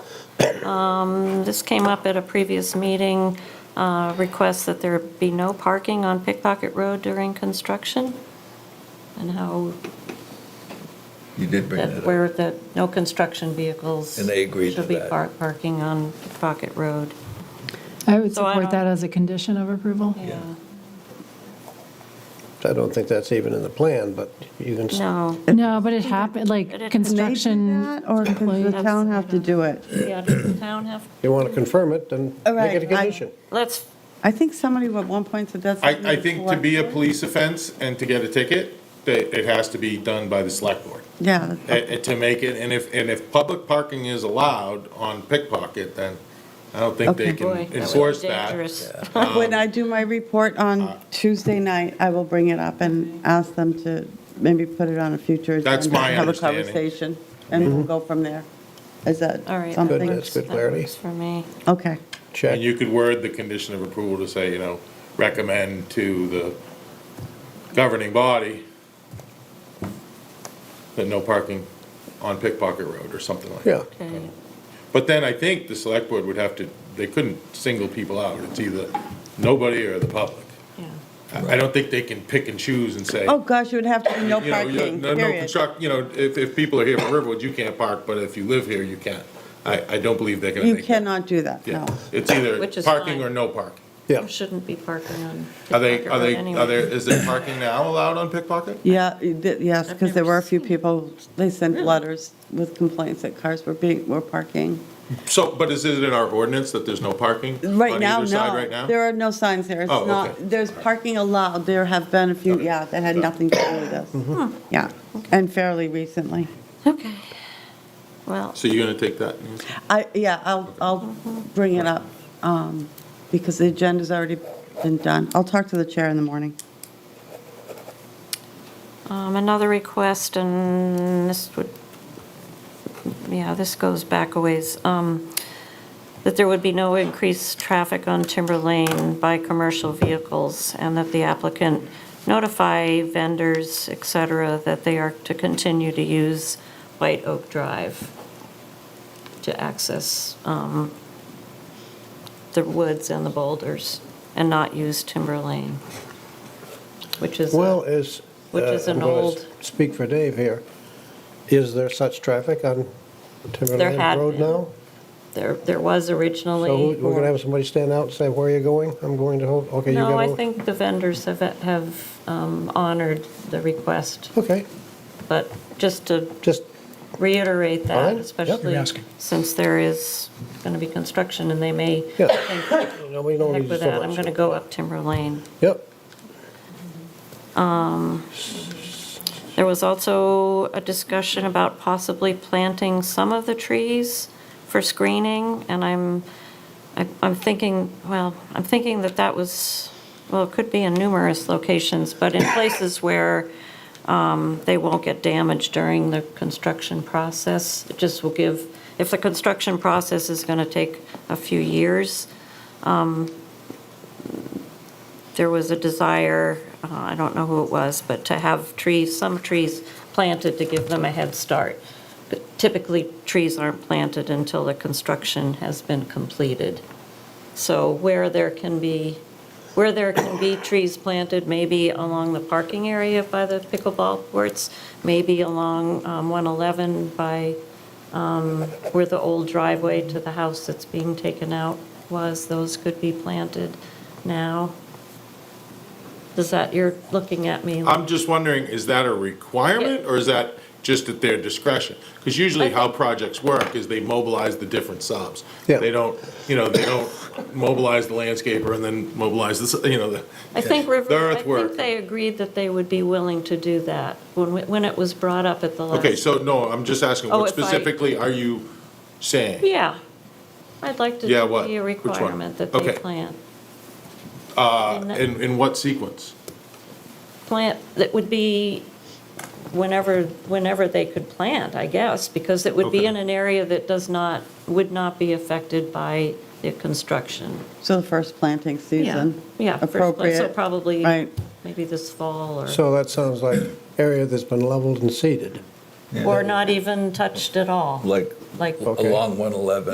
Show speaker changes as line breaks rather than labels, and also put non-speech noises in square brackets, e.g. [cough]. Um, This came up at a previous meeting, uh, request that there be no parking on Pickpocket Road during construction, and how,
You did bring
that
that up.
where the, no construction vehicles.
And they agreed to
Should be
that.
par- parking on Pickpocket Road.
I would
So I don't-
support that as a condition of approval.
I don't think that's even in the plan, but you can, s-
No,
No, but it happened,
But it-
like,
Can
Can they do
construction
that, or does the
employees.
town have to do it?
yeah, does the town have,
you want to confirm it, then
All
make it
right,
a
I-
condition.
let's,
I think somebody at one point said that's. something
I, I
the
think to
select
be a
board-
police offense and to get a ticket, that it has to be done by the select board.
Yeah,
Uh, uh, To make it, and if, and if public parking is allowed on pickpocket, then I don't think they
Okay.
can
boy, that was
enforce that.
dangerous. [laughs]
[laughs] when
um,
I do my report
uh,
on Tuesday night, I will bring it up and ask them to maybe put it on a future.
That's
agenda,
my understanding.
Have a conversation, and we'll go from there. Is that
All right. that
something?
Mm-hmm. Good,
works.
that's good
That
clarity.
works For me.
Okay,
Check.
And you could word the condition of approval to say, you know, recommend to the governing body that no parking on pickpocket road or something like
Yeah,
that.
Okay.
But then I think the select board would have to, they couldn't single people out. It's either nobody or the public.
Yeah.
I I don't think they can pick and choose and say,
oh gosh, it would have to be no
you know, you-
parking,
no- No
period.
construct, you know, if, if people are here from Riverwood, you can't park, but if you live here, you can. I, I don't believe they're gonna
You
make that.
cannot do that,
Yeah,
no.
it's either
Which is
parking
fine.
or no parking.
yeah.
Shouldn't be parking on
Are they,
Pickpocket
are
Road
they,
anyway.
are there, is there parking now allowed on pickpocket?
Yeah, you did- yes,
I've
because there
never
were a few
seen it.
people, they sent
Really?
letters with complaints that cars were being, were parking.
So, but is it in our ordinance that there's no parking?
Right
on
now,
either side
no.
Right now?
There are no signs there. It's
Oh,
not,
okay.
there's parking allowed. There have been a few,
Got it. Mm-hmm.
yeah, that had nothing to do with this. Yeah, and fairly recently.
Okay. Well,
So you're gonna take that? Nancy?
I, yeah, I'll, I'll bring it up um, because the agenda's already been done. I'll talk to the chair in the morning.
um, another request, and this would, yeah, this goes back a ways, um, that there would be no increased traffic on Timber Lane by commercial vehicles, and that the applicant notify vendors, et cetera, that they are to continue to use White Oak Drive to access um, the woods and the boulders, and not use Timber Lane, which is. a-
Well, is.
Which
uh,
is an
I'm gonna
old-
Speak for Dave here. Is there such traffic on Timberland
had
Road
been.
now?
There, there was
So who-
originally.
we're going to have somebody stand out and say, where are you going? I'm going to, Ho- okay, you got to.
No, I think the vendors have, have um, honored the request,
Okay,
but just to
just,
reiterate
Fine,
that,
yep.
especially
You're asking.
since there is going to be construction and they may
Yeah.
think, heck
nobody knows
with
so
that, I'm
much.
going to go up Timber Lane.
Yep,
There was also a discussion about possibly planting some of the trees for screening, and I'm, I- I'm thinking, well, I'm thinking that that was, well, it could be in numerous locations, but in places where um, they won't get damaged during the construction process. It just will give, if the construction process is going to take a few years, there was a desire, uh, I don't know who it was, but to have trees, some trees planted to give them a head start. But typically, trees aren't planted until the construction has been completed. So where there can be, where there can be trees planted, maybe along the parking area by the pickleball courts, maybe along um, 111 by um, where the old driveway to the house that's being taken out was, those could be planted now. Does that, you're looking at me, like-
I'm just wondering, is that a requirement or is that just at their discretion? Because usually how projects work is they mobilize the different subs.
Yeah.
They don't, you know, they don't mobilize the landscaper and then mobilize the, s- you know, the.
I think River,
The
I
earthwork.
think they agreed that they would be willing to do that when, we- when it was brought up at the last.
Okay, so no, I'm just asking,
Oh,
what
if I-
specifically are you saying?
Yeah, I'd like to
Yeah, what?
be a
Which one?
requirement that they
Okay. Uh,
plant,
In, in what sequence?
plant, that would be whenever, whenever they could plant, I guess, because it would be
Okay.
in an area that does not, would not be affected by the construction.
So the first planting season.
Yeah, first plant, so
Appropriate.
probably,
Right.
maybe this fall or.
so that sounds like area that's been leveled and seeded.
Or not even touched at all,
Like
like
Okay.
along 111.